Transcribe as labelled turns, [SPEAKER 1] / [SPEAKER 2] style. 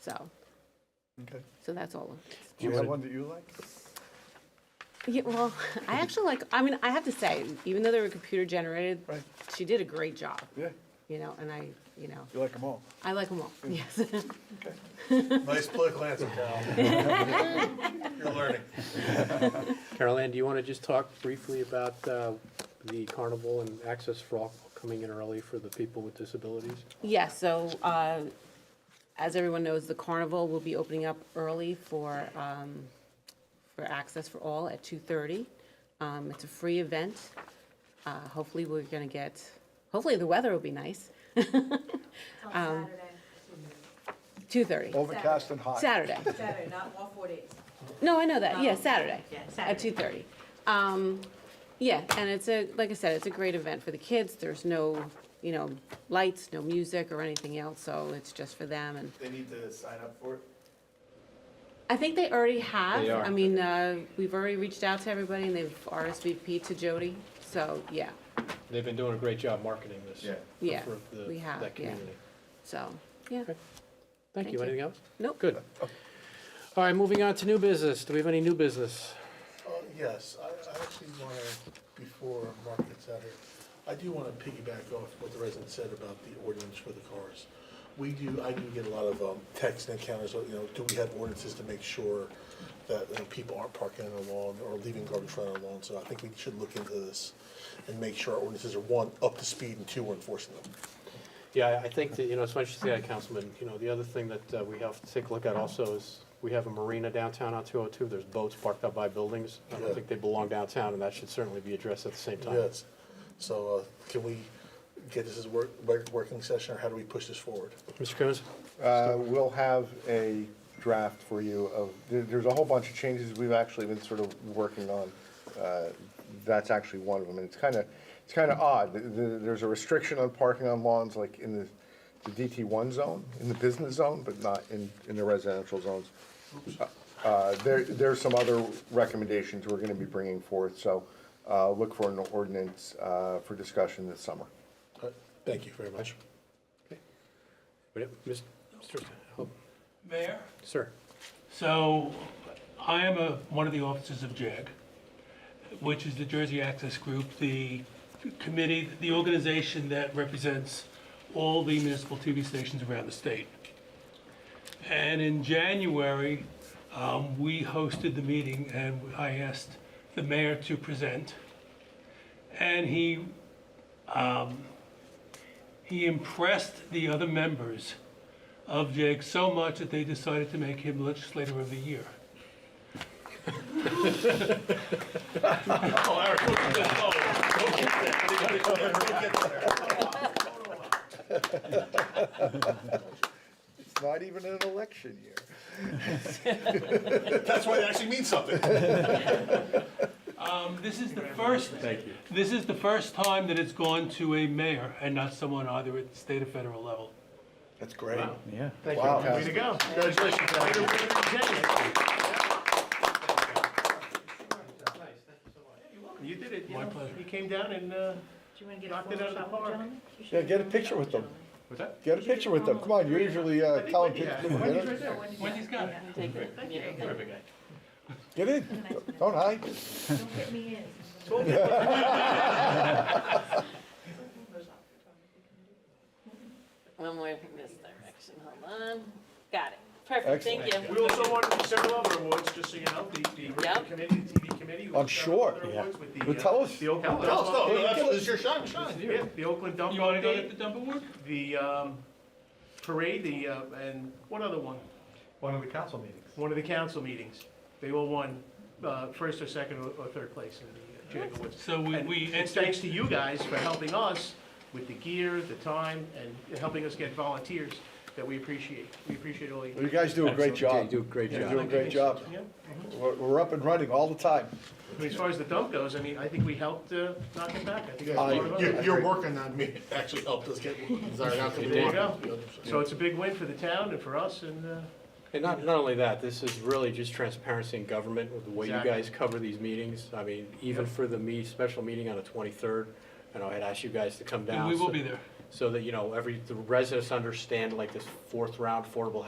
[SPEAKER 1] so,
[SPEAKER 2] Okay.
[SPEAKER 1] so that's all. of it.
[SPEAKER 2] Do you have one that you like?
[SPEAKER 1] Yeah, well, I actually like, I mean, I have to say, even though they were computer generated,
[SPEAKER 2] Right.
[SPEAKER 1] she did a great job,
[SPEAKER 2] Yeah,
[SPEAKER 1] you know, and I, you know,
[SPEAKER 2] you like them all.
[SPEAKER 1] I like them all, yes.
[SPEAKER 2] Okay.
[SPEAKER 3] Nice political answer, Cal. You're learning.
[SPEAKER 4] Carol Ann, do you want to just talk briefly about uh, the carnival and access for all coming in early for the people with disabilities?
[SPEAKER 1] Yeah, so uh, as everyone knows, the carnival will be opening up early for, um, for Access for All at 2:30. Um, It's a free event. Uh, Hopefully, we're going to get, hopefully, the weather will be nice.
[SPEAKER 5] On
[SPEAKER 3] Oh
[SPEAKER 1] Two-thirty,
[SPEAKER 2] Overcast and hot.
[SPEAKER 1] Saturday.
[SPEAKER 5] Saturday, Saturday, not all four days.
[SPEAKER 1] No, I know that, yeah,
[SPEAKER 5] Oh.
[SPEAKER 1] Saturday.
[SPEAKER 5] Yeah,
[SPEAKER 1] At
[SPEAKER 5] Saturday.
[SPEAKER 1] two-thirty. Um, yeah, and it's a, like I said, it's a great event for the kids. There's no, you know, lights, no music or anything else, so it's just for them and
[SPEAKER 3] They need to sign up for it?
[SPEAKER 1] I think they already have.
[SPEAKER 6] They are.
[SPEAKER 1] I mean, uh, we've already reached out to everybody and they've RSVP'd to Jody, so, yeah,
[SPEAKER 4] They've been doing a great job marketing this.
[SPEAKER 3] Yeah.
[SPEAKER 1] Yeah,
[SPEAKER 4] for the-
[SPEAKER 1] we have,
[SPEAKER 4] That
[SPEAKER 1] yeah.
[SPEAKER 4] community.
[SPEAKER 1] so, yeah.
[SPEAKER 4] Okay. Thank
[SPEAKER 1] Thank
[SPEAKER 4] you.
[SPEAKER 1] you.
[SPEAKER 4] Anything else?
[SPEAKER 1] Nope.
[SPEAKER 4] Good. All right, moving on to new business. Do we have any new business?
[SPEAKER 3] Oh, yes, I, I actually want to, before Mark gets out here, I do want to piggyback off what the resident said about the ordinance for the cars. We do, I do get a lot of um, texts and encounters, you know, do we have ordinances to make sure that, you know, people aren't parking on the lawn or leaving garbage on the lawn? So I think we should look into this and make sure our ordinances are, one, up to speed, and two, we're enforcing them.
[SPEAKER 4] Yeah, I I think that, you know, as much as that, Councilman, you know, the other thing that uh, we have to take a look at also is, we have a marina downtown on 202, there's boats parked up by buildings. I don't
[SPEAKER 3] Yeah.
[SPEAKER 4] think they belong downtown, and that should certainly be addressed at the same time.
[SPEAKER 3] Yes, so uh, can we get this as a work, work- working session, or how do we push this forward?
[SPEAKER 4] Mr. Coons?
[SPEAKER 6] Uh, We'll have a draft for you of, there- there's a whole bunch of changes we've actually been sort of working on. Uh, That's actually one of them, and it's kind of, it's kind of odd. Th- th- There's a restriction on parking on lawns, like in the the DT1 zone, in the business zone, but not in, in the residential zones. Uh, There, there's some other recommendations we're going to be bringing forth, so uh, look for an ordinance uh, for discussion this summer.
[SPEAKER 3] Uh, Thank you very much.
[SPEAKER 4] Wait, Mr. Mr. Hope.
[SPEAKER 7] Mayor?
[SPEAKER 4] Sir?
[SPEAKER 7] So, I am a, one of the officers of JAG, which is the Jersey Access Group, the committee, the organization that represents all the municipal TV stations around the state. And in January, um, we hosted the meeting and I asked the mayor to present. And he, um, he impressed the other members of Jake so much that they decided to make him legislator of the year. Oh, Eric, we'll get that. Oh, we'll get that. Anybody else? We'll get that.
[SPEAKER 2] It's not even an election year.
[SPEAKER 3] That's why it actually means something.
[SPEAKER 7] Um, This is the first, this is the first time that it's gone to a mayor and not someone either at the state or federal level.
[SPEAKER 3] That's great.
[SPEAKER 2] Yeah.
[SPEAKER 6] Wow.
[SPEAKER 3] Congratulations.
[SPEAKER 8] You did it, you
[SPEAKER 7] My
[SPEAKER 8] know,
[SPEAKER 7] pleasure.
[SPEAKER 8] you came down and, uh,
[SPEAKER 5] Do you want to get
[SPEAKER 8] a Knocked it out of the photo, park. gentlemen?
[SPEAKER 2] Yeah, get a picture with them.
[SPEAKER 8] what's that?
[SPEAKER 2] Get a picture with them. Come on, you're usually uh, telling people.
[SPEAKER 8] Yeah,
[SPEAKER 2] Get
[SPEAKER 8] Wendy's
[SPEAKER 2] in.
[SPEAKER 8] right there.
[SPEAKER 7] Wendy's got it.
[SPEAKER 8] Thank you. Perfect guy.
[SPEAKER 2] Get in. Don't hide.
[SPEAKER 5] Don't get me in.
[SPEAKER 1] One more in this direction, hold on. Got it, perfect,
[SPEAKER 2] Excellent.
[SPEAKER 1] you.
[SPEAKER 8] We also won the several other awards, just so you know, the, the radio
[SPEAKER 1] Yep.
[SPEAKER 8] committee, the TV committee. we won
[SPEAKER 2] I'm
[SPEAKER 8] several
[SPEAKER 2] Oh, sure.
[SPEAKER 8] other
[SPEAKER 2] Yeah.
[SPEAKER 8] awards with the,
[SPEAKER 2] Well,
[SPEAKER 8] uh,
[SPEAKER 2] tell us.
[SPEAKER 8] The Oakland.
[SPEAKER 3] No, no,
[SPEAKER 4] Oh,
[SPEAKER 3] no, Oh, that's- it's your shine,
[SPEAKER 8] dump-
[SPEAKER 3] shine.
[SPEAKER 8] Yeah, the Oakland dump
[SPEAKER 7] You wanna go
[SPEAKER 8] update,
[SPEAKER 7] get the dump award?
[SPEAKER 8] the, um, parade, the, uh, and what other one?
[SPEAKER 9] One of the council meetings.
[SPEAKER 8] One of the council meetings. They all won, uh, first or second or, or third place in the uh, JAG Awards.
[SPEAKER 7] So we,
[SPEAKER 8] And
[SPEAKER 7] we
[SPEAKER 8] it's
[SPEAKER 7] entered,
[SPEAKER 8] thanks to you guys for helping us with the gear, the time, and helping us get volunteers that we appreciate. We appreciate all you.
[SPEAKER 2] You guys do a great
[SPEAKER 4] Yeah, you
[SPEAKER 2] job.
[SPEAKER 4] do a great
[SPEAKER 2] You're
[SPEAKER 4] job.
[SPEAKER 2] doing a great job.
[SPEAKER 8] Yeah.
[SPEAKER 2] We're, we're up and running all the time.
[SPEAKER 8] I mean, As far as the dump goes, I mean, I think we helped uh, knock it back. I think that's
[SPEAKER 2] I-
[SPEAKER 8] part of it.
[SPEAKER 3] Your, your working on me actually helped us get desired outcome.
[SPEAKER 8] There you go. So it's a big win for the town and for us, and uh,
[SPEAKER 4] And not, not only that, this is really just transparency in government with the way you
[SPEAKER 8] Exactly.
[SPEAKER 4] guys cover these meetings. I mean, even for the me, special meeting on the 23rd, and I had asked you guys to come down.
[SPEAKER 7] we will
[SPEAKER 4] so-
[SPEAKER 7] be there.
[SPEAKER 4] So that, you know, every, the residents understand like this fourth round affordable